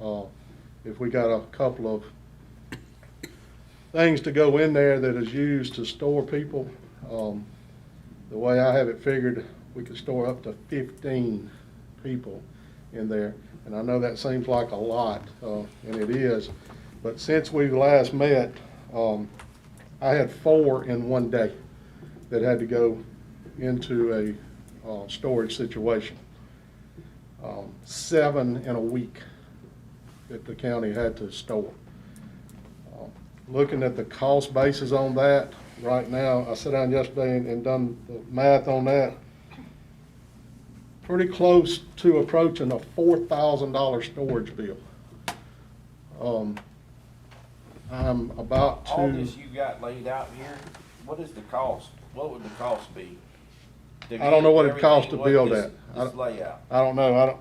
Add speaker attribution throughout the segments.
Speaker 1: Uh, if we got a couple of things to go in there that is used to store people, um, the way I have it figured, we could store up to fifteen people in there. And I know that seems like a lot, uh, and it is, but since we last met, um, I had four in one day that had to go into a, uh, storage situation. Um, Seven in a week that the county had to store. Um, Looking at the cost basis on that, right now, I sat down yesterday and, and done the math on that. Pretty close to approaching a four thousand dollar storage bill. Um, I'm about to.
Speaker 2: All this you got laid out here, what is the cost? What would the cost be?
Speaker 1: I don't know what it costs to
Speaker 2: Everything, what
Speaker 1: build that.
Speaker 2: this-
Speaker 1: I
Speaker 2: This
Speaker 1: don't-
Speaker 2: layout.
Speaker 1: I don't know, I don't,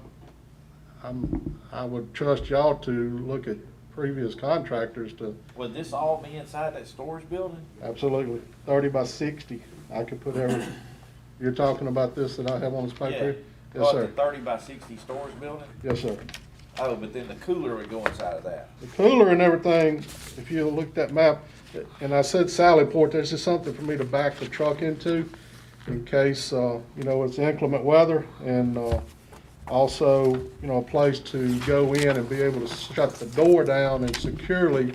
Speaker 1: I'm, I would trust y'all to look at previous contractors to,
Speaker 2: Would this all be inside that storage building?
Speaker 1: absolutely, thirty by sixty, I could put every, you're talking about this that I have on this paper? here?
Speaker 2: Yeah.
Speaker 1: Yes,
Speaker 2: Well, it's
Speaker 1: sir,
Speaker 2: a Thirty by sixty storage building?
Speaker 1: yes, sir.
Speaker 2: Oh, but then the cooler would go inside of that.
Speaker 1: The cooler and everything, if you look at that map, and I said Sallyport, this is something for me to back the truck into in case, uh, you know, it's inclement weather and, uh, also, you know, a place to go in and be able to shut the door down and securely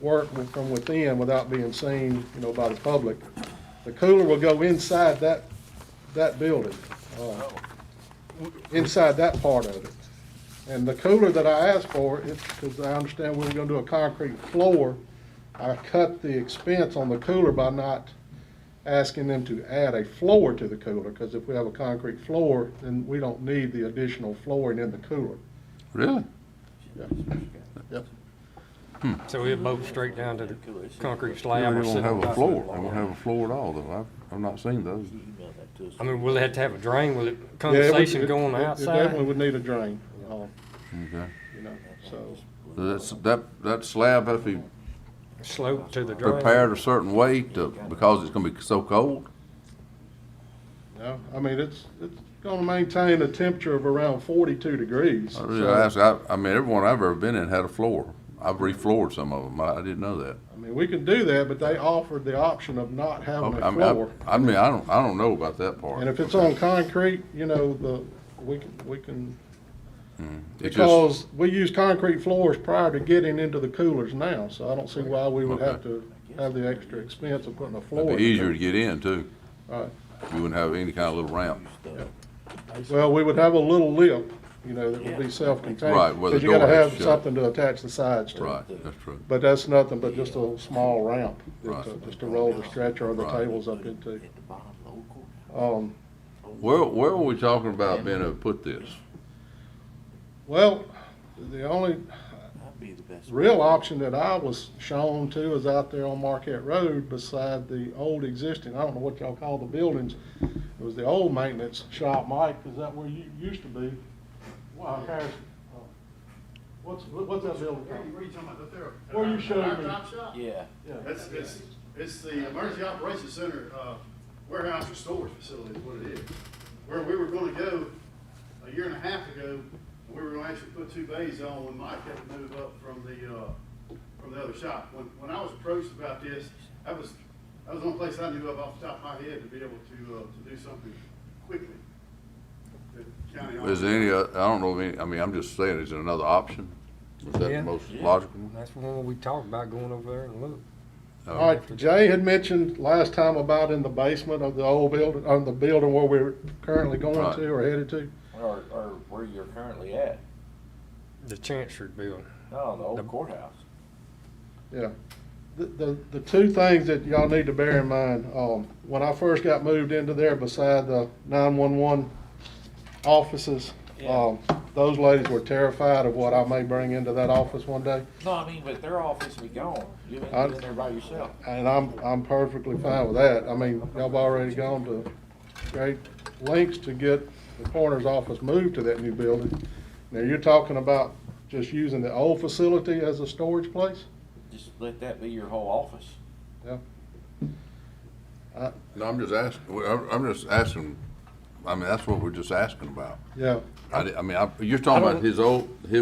Speaker 1: work with- from within without being seen, you know, by the public. The cooler will go inside that, that building. uh,
Speaker 2: Oh,
Speaker 1: inside that part of it. And the cooler that I asked for, it's, because I understand we were gonna do a concrete floor, I cut the expense on the cooler by not asking them to add a floor to the cooler, because if we have a concrete floor, then we don't need the additional flooring in the cooler.
Speaker 3: Really?
Speaker 1: Yep.
Speaker 4: So it mowed straight down to the
Speaker 2: Cooler, it's-
Speaker 4: concrete
Speaker 3: They
Speaker 4: slab. or
Speaker 3: won't
Speaker 4: sit on
Speaker 3: have a
Speaker 4: top
Speaker 3: floor. They
Speaker 4: of
Speaker 3: won't
Speaker 4: it.
Speaker 3: have a floor at all, though. I've, I've not seen those.
Speaker 2: You emailed that to us.
Speaker 4: I mean, will it have to have a drain? Will
Speaker 1: Yeah,
Speaker 4: it
Speaker 1: it would-
Speaker 4: condensation go on
Speaker 1: it- it
Speaker 4: the
Speaker 1: Definitely
Speaker 4: outside?
Speaker 1: would need a drain, um,
Speaker 3: Okay.
Speaker 1: you know, so,
Speaker 3: That's, that, that slab has to be
Speaker 4: Slope to the drain?
Speaker 3: prepared a certain way to, because it's gonna be so cold.
Speaker 1: no, I mean, it's, it's gonna maintain a temperature of around forty-two degrees.
Speaker 3: I
Speaker 1: so-
Speaker 3: really ask, I, I mean, everyone I've ever been in had a floor. I've refloored some of them. I, I didn't know that.
Speaker 1: I mean, we can do that, but they offered the option of not having
Speaker 3: I
Speaker 1: a
Speaker 3: mean, I,
Speaker 1: floor.
Speaker 3: I mean, I don't, I don't know about that part.
Speaker 1: And if it's on concrete, you know, the, we can, we can,
Speaker 3: It's Hmm, just,
Speaker 1: because we use concrete floors prior to getting into the coolers now, so I don't see why we would have to have the extra expense of putting a floor.
Speaker 3: it'd
Speaker 1: in.
Speaker 3: be easier to get in too.
Speaker 1: Right.
Speaker 3: You wouldn't have any kind of little ramp.
Speaker 1: Well, we would have a little lip, you know, that would be self-contained.
Speaker 3: Right, where the
Speaker 1: Because you gotta
Speaker 3: door is
Speaker 1: have
Speaker 3: shut.
Speaker 1: something to attach the sides to.
Speaker 3: Right, that's true.
Speaker 1: But that's nothing but just a small ramp,
Speaker 3: Right.
Speaker 1: that, uh, just to roll the stretcher or the
Speaker 3: Right.
Speaker 1: tables up into.
Speaker 2: At the bottom, local.
Speaker 1: Um,
Speaker 3: Where, where were we talking about being able to put this?
Speaker 1: well, the only,
Speaker 2: That'd be the best.
Speaker 1: real option that I was shown to is out there on Marquette Road beside the old existing, I don't know what y'all call the buildings. It was the old maintenance shop, Mike, is that where you used to be? Wow, Harrison, uh, what's, what's that building
Speaker 5: What are
Speaker 1: called?
Speaker 5: you what are you talking about, the therapy?
Speaker 1: What are you showing me?
Speaker 5: Drop shop?
Speaker 2: Yeah.
Speaker 1: Yeah,
Speaker 5: It's, it's, it's the emergency operations center, uh, warehouse or storage facility is what it is. Where we were gonna go a year and a half ago, we were gonna actually put two bays on when Mike had to move up from the, uh, from the other shop. When, when I was approached about this, that was, that was the only place I knew of off the top of my head to be able to, uh, to do something quickly. The county
Speaker 3: Is there any, uh, I don't know, of any. I mean, I'm just saying, is there another option? Is that
Speaker 4: Yeah.
Speaker 3: the most
Speaker 2: Yeah.
Speaker 3: logical? one?
Speaker 4: That's one we talked about going over there and look.
Speaker 3: No.
Speaker 1: all right, Jay had mentioned last time about in the basement of the old building, of the building where we're currently going
Speaker 3: Right.
Speaker 1: to or headed to.
Speaker 2: Or, or where you're currently at.
Speaker 4: The Chancery building.
Speaker 2: No, the
Speaker 4: The-
Speaker 2: old courthouse.
Speaker 1: Yeah. The, the, the two things that y'all need to bear in mind, um, when I first got moved into there beside the nine-one-one offices,
Speaker 2: Yeah.
Speaker 1: um, those ladies were terrified of what I may bring into that office one day.
Speaker 2: No, I mean, but their office be gone. You
Speaker 1: I-
Speaker 2: ain't in there by yourself.
Speaker 1: And I'm, I'm perfectly fine with that. I mean, y'all have already gone to great lengths to get the coroner's office moved to that new building. Now, you're talking about just using the old facility as a storage place?
Speaker 2: Just let that be your whole office.
Speaker 1: Yeah.
Speaker 3: No, I'm just asking, well, I'm, I'm just asking, I mean, that's what we're just asking about.
Speaker 1: Yeah.
Speaker 3: I, di- I mean, I, you're talking
Speaker 1: I
Speaker 3: about
Speaker 1: don't-
Speaker 3: his old, his